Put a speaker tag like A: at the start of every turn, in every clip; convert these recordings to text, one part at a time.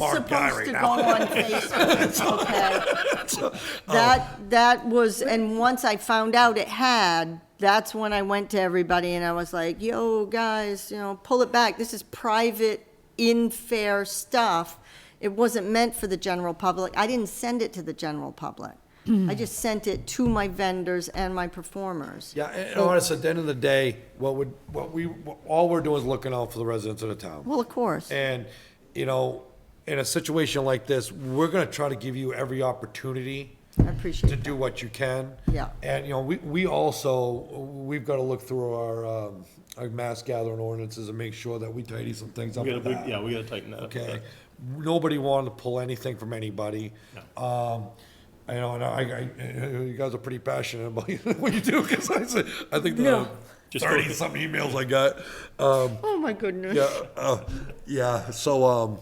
A: Bar guy
B: supposed
A: right
B: to
A: now. um,
B: go on Facebook, okay? That, that was, and once I found out it had, that's when I went to everybody and I was like, yo, guys, you know, pull it back. This is private, in-fair stuff. It wasn't meant for the general public. I didn't send it to the general public.
A: Hmm.
B: I just sent it to my vendors and my performers.
A: Yeah, and and honestly, at the end of the day, what would, what we, what- all we're doing is looking out for the residents of the town.
B: Well, of course.
A: And, you know, in a situation like this, we're gonna try to give you every opportunity
B: I appreciate
A: to
B: that.
A: do what you can.
B: Yeah.
A: And, you know, we, we also, we've gotta look through our, um, our mass gathering ordinances and make sure that we tidy some things up
C: We
A: with
C: gotta,
A: that.
C: we- yeah, we gotta tighten that up.
A: Okay, nobody wanted to pull anything from anybody. Um, I know, and I, I, you guys are pretty passionate about what you do, because I said, I think the
C: Just go with it.
A: thirty-some emails I got, um,
B: Oh, my goodness.
A: yeah, uh, yeah, so, um,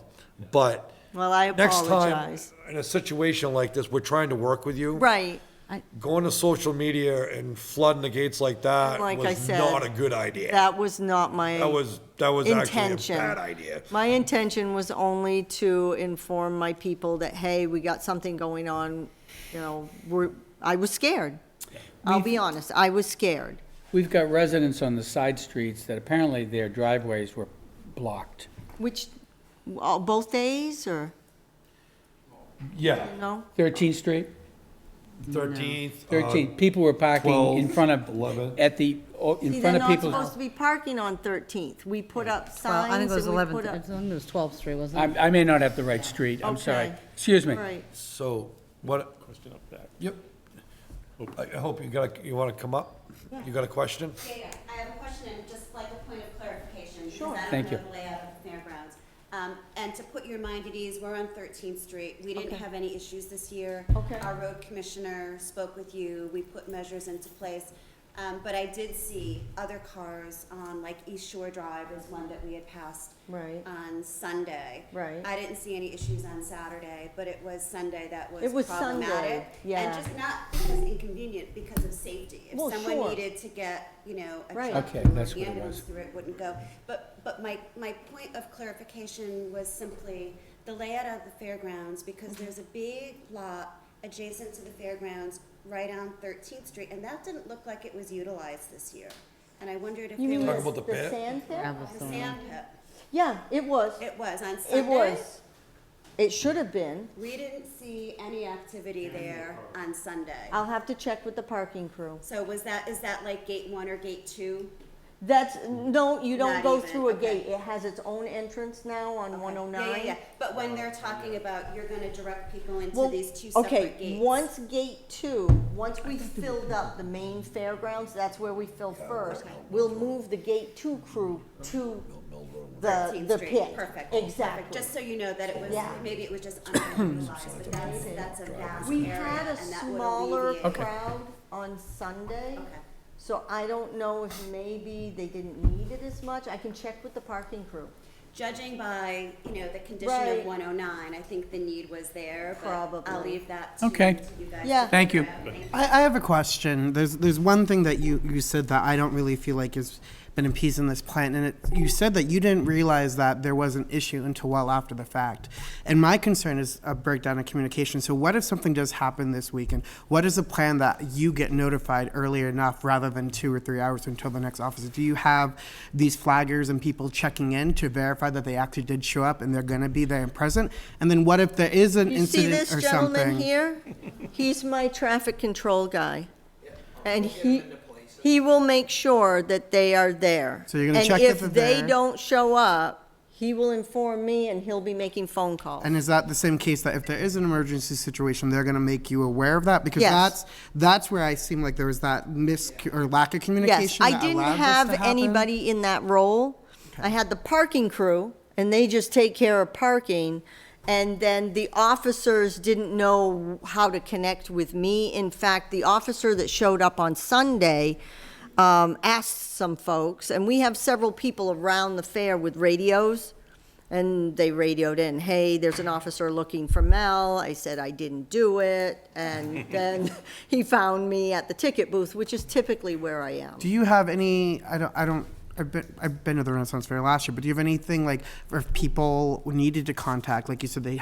A: but.
B: Well, I
A: Next time,
B: apologize.
A: in a situation like this, we're trying to work with you.
B: Right. I-
A: Going to social media and flooding the gates like that
B: Like I
A: was
B: said,
A: not a good idea.
B: That was not my.
A: That was, that was actually
B: intention.
A: a bad idea.
B: My intention was only to inform my people that, hey, we got something going on, you know, we're, I was scared. I'll be honest, I was scared.
D: We've got residents on the side streets that apparently their driveways were blocked.
B: Which, all- both days or,
A: Yeah,
B: no?
D: 13th Street,
A: thirteenth. uh,
D: 13th, people were parking in
A: 12,
D: front of,
A: 11.
D: at the, oh, in
B: See, they're
D: front of
B: not supposed
D: people's.
B: to be parking on 13th. We put up
E: Well, I think
B: signs
E: it was
B: and we put
E: 11th, I
B: up.
E: think it was 12th Street, wasn't it?
D: I, I may not have the right street, I'm sorry.
B: Okay.
D: Excuse me.
B: Right.
A: So what,
C: Question up back.
A: yep. I I hope you got, a- you want to come up? You got a question?
F: Yeah, yeah. I have a question and just like a point of clarification. Sure.
D: Thank
F: Because I don't
D: you.
F: know the layout of the fairgrounds. Um, and to put your mind at ease, we're on Thirteenth Street. We didn't have any issues this year.
B: Okay.
F: Our road commissioner spoke with you. We put measures into place. Um, but I did see other cars on like East Shore Drive is one that we had passed.
B: Right.
F: On Sunday.
B: Right.
F: I didn't see any issues on Saturday, but it was Sunday that was
B: It was Sunday,
F: problematic.
B: yeah.
F: And just not because inconvenient, because of safety.
B: Well,
F: If someone
B: sure.
F: needed to get, you know, a
B: Right.
F: truck
D: Okay,
F: or
D: that's
F: the
D: what it
F: ambulance
D: was.
F: through it wouldn't go. But, but my, my point of clarification was simply the layout of the fairgrounds, because
B: Mm-hmm.
F: there's a big lot adjacent to the fairgrounds right on Thirteenth Street, and that didn't look like it was utilized this year. And I wondered if it
A: Talk
F: was
A: about the pit?
B: sand
E: Yeah,
B: there?
E: it was
F: the
E: the one.
F: sand pit.
B: Yeah, it was.
F: It was on Sunday.
B: It was. It should have been.
F: We didn't see any activity there on Sunday.
B: I'll have to check with the parking crew.
F: So was that, is that like gate one or gate two?
B: That's, no, you don't
F: Not
B: go
F: even,
B: through a
F: okay.
B: gate. It has its own entrance now on one oh
F: Yeah, yeah, yeah.
B: nine.
F: But when they're
D: Oh,
F: talking about you're gonna direct people into
B: Well,
F: these two
B: okay,
F: separate gates.
B: once gate two, once we filled up the main fairgrounds, that's where we fill first. We'll move the gate two crew to the,
F: 13th
B: the
F: Street.
B: pit.
F: Perfect. Perfect.
B: Exactly.
F: Just so you know that it was,
B: Yeah.
F: maybe it was just underutilized, but that's, that's a vast
B: We
F: area
B: had a
F: and that would
B: smaller
F: alleviate.
B: crowd on Sunday,
F: Okay.
B: so I don't know if maybe they didn't need it as much. I can check with the parking crew.
F: Judging by, you know, the condition
B: Right.
F: of one oh nine, I think the need was there, but I'll
B: Probably.
F: leave that to to you
D: Okay.
F: guys. to
B: Yeah.
D: Thank you.
F: figure out. Thank
G: I, I have a question. There's there's one thing that you, you said that I don't really feel like has been appeased in this plan, and it, you said that you didn't realize that there was an issue until well after the fact. And my concern is a breakdown in communication. So what if something does happen this weekend? What is the plan that you get notified early enough rather than two or three hours until the next officer? Do you have these flaggers and people checking in to verify that they actually did show up and they're going to be there and present? And then what if there is an
B: You see
G: incident
B: this
G: or
B: gentleman
G: something?
B: here? He's my traffic control guy. And he, he will make sure that they are there.
G: So you're gonna check if
B: And if
G: they're
B: they
G: there?
B: don't show up, he will inform me and he'll be making phone calls.
G: And is that the same case that if there is an emergency situation, they're going to make you aware of that? Because
B: Yes.
G: that's that's where I seem like there was that mis or lack of
B: Yes,
G: communication.
B: I
G: that
B: didn't
G: allowed this
B: have
G: to happen.
B: anybody in that role. I had the parking crew, and they just take care of parking. And then the officers didn't know how to connect with me. In fact, the officer that showed up on Sunday um, asked some folks, and we have several people around the fair with radios. And they radioed in, hey, there's an officer looking for Mel. I said I didn't do it. And then he found me at the ticket booth, which is typically where I am.
G: Do you have any? I don't. I don't. I've been, I've been to the Renaissance Fair last year, but do you have anything like, if people needed to contact, like you said, they